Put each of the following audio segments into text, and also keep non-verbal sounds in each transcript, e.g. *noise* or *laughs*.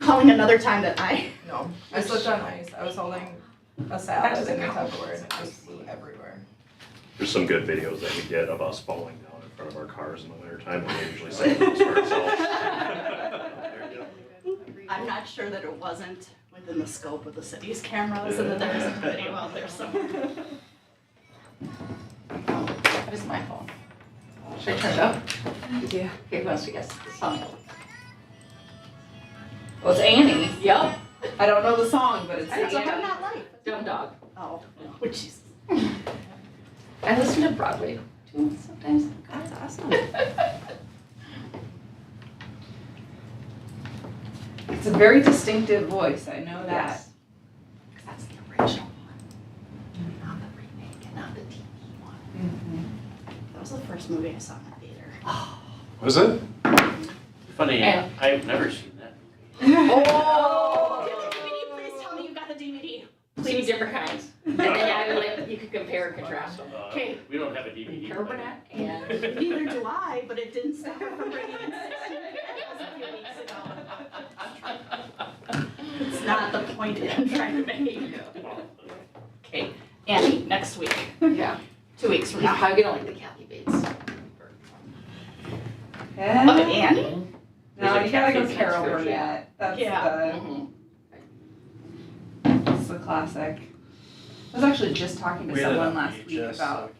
calling another time that I. No, I slipped on ice. I was holding a salad and a Tupperware and it just flew everywhere. There's some good videos that we get of us falling down in front of our cars in the wintertime, and we usually save those for ourselves. I'm not sure that it wasn't within the scope of the city's cameras and that there was a video out there somewhere. That is my phone. Should I turn it up? Yeah. Okay, who else we got? Song. Well, it's Annie. Yep. I don't know the song, but it's. It's I'm Annie. not like. Dumb Dog. Oh, which is. I listen to Broadway too sometimes. That's awesome. It's a very distinctive voice. I know that. Yes. Because that's the original one, not the remake and not the TV one. That was the first movie I saw in the theater. Was it? Funny, Yeah. I've never seen that. *laughs* Do Oh. you Oh! have the DVD? Please tell me you got the DVD. Two different kinds. And then *laughs* I would, you could compare and contrast them. Uh, Okay. We don't have a DVD. player. Carbonate and. Neither do I, but it didn't stop her from bringing in 16 videos a few weeks ago. It's not the point that I'm trying to make. Okay, Annie, next week, Yeah. two weeks from You're now. probably gonna like the Kathy Bates. Oh, Annie? No, you gotta go There's a Carol Catfish Burnett. That's Yeah. Mhm. the that's the classic. I was actually just talking to someone last week about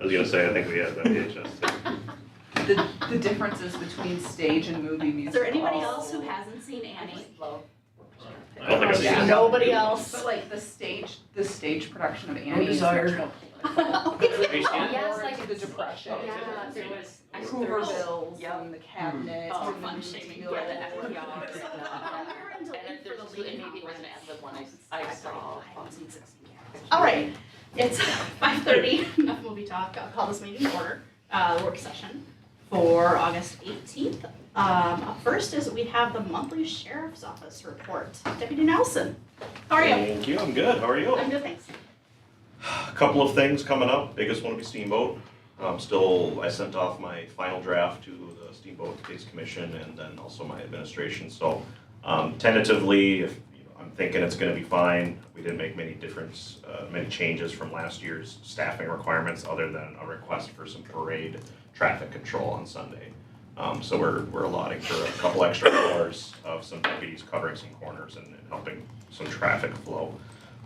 I was gonna say, I think we had that VHS tape. the, the differences between stage and movie musicals. Is there anybody else who hasn't seen Annie? I don't think I've seen it. Nobody else. But like the stage, the stage production of Annie is Desire. much more *laughs* Have you seen it? Yes, more like into the depression. Yeah, there was. I- there Hoover was- bills Yep. and the cabinet. Oh, and fun the shaming, deal. yeah, that was- *laughs* So, yeah. *laughs* um, we were in And then Duluth there's for the two, lady and maybe it was an conference. ad lib one I, I saw. on- All right, it's *laughs* five thirty, enough movie talk, I'll call this meeting to order, uh, work session for August eighteenth. Um, up first is we have the monthly sheriff's office report, Deputy Nelson, how are you? Thank you, I'm good, how are you? I'm good, thanks. A *sighs* Couple of things coming up, biggest one will be Steamboat. Um, still, I sent off my final draft to the Steamboat Case Commission and then also my administration, so, um, tentatively, if, you know, I'm thinking it's gonna be fine. We didn't make many difference, uh, many changes from last year's staffing requirements, other than a request for some parade traffic control on Sunday. Um, so we're, we're allotting for a couple extra hours of some deputies covering some corners and and helping some traffic flow.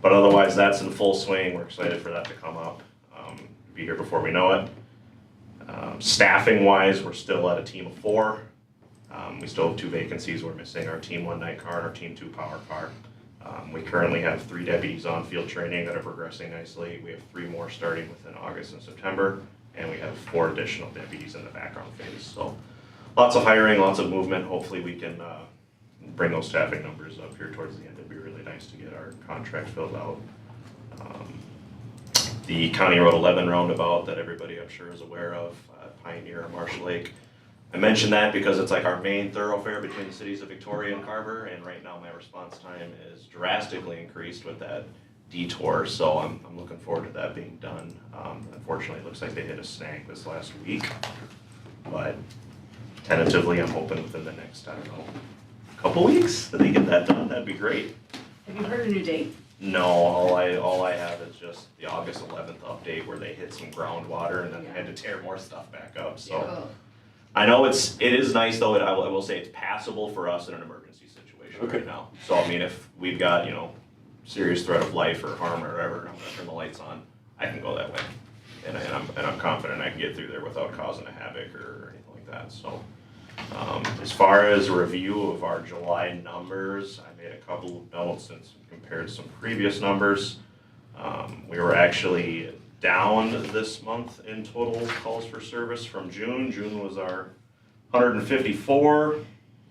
But otherwise, that's in full swing. We're excited for that to come up. Um, be here before we know it. Um, staffing wise, we're still at a team of four. Um, we still have two vacancies. We're missing our team one night car and our team two power car. Um, we currently have three deputies on field training that are progressing nicely. We have three more starting within August and September, and we have four additional deputies in the background phase. So lots of hiring, lots of movement. Hopefully, we can uh, bring those staffing numbers up here towards the end. It'd be really nice to get our contract filled out. Um, The County Road eleven roundabout that everybody I'm sure is aware of, uh, Pioneer and Marshall Lake. I mention that because it's like our main thoroughfare between the cities of Victoria and Carver, and right now my response time is drastically increased with that detour, so I'm, I'm looking forward to that being done. Um, Unfortunately, it looks like they hit a snag this last week, but tentatively, I'm hoping within the next, I don't know, couple weeks that they get that done, that'd be great. Have you heard a new date? No, all I, all I have is just the August eleventh update where they hit some groundwater and then they had to tear more stuff back up, so. I know it's, it is nice though, and I will, I will say it's passable for us in an emergency situation Okay. right now. So I mean, if we've got, you know, serious threat of life or harm or whatever, and I'm gonna turn the lights on, I can go that way. And I- and I'm, and I'm confident I can get through there without causing a havoc or anything like that, so. Um, as far as a review of our July numbers, I made a couple of notes and compared some previous numbers. Um, we were actually down this month in total calls for service from June. June was our hundred and fifty-four.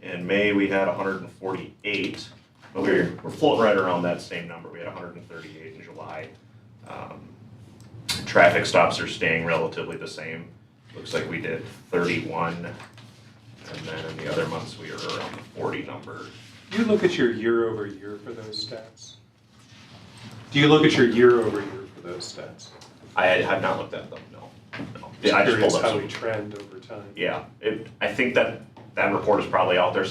In May, we had hundred and forty-eight, but we're, we're floating right around that same number. We had hundred and thirty-eight in July. Um, Traffic stops are staying relatively the same. Looks like we did thirty-one and then in the other months, we are around the forty number. Do you look at your year over year for those stats? Do you look at your year over year for those stats? I had had not looked at them, no. no. Yeah, I just Curious pulled up How we some. trend over time. Yeah, it, I think that, that report is probably out there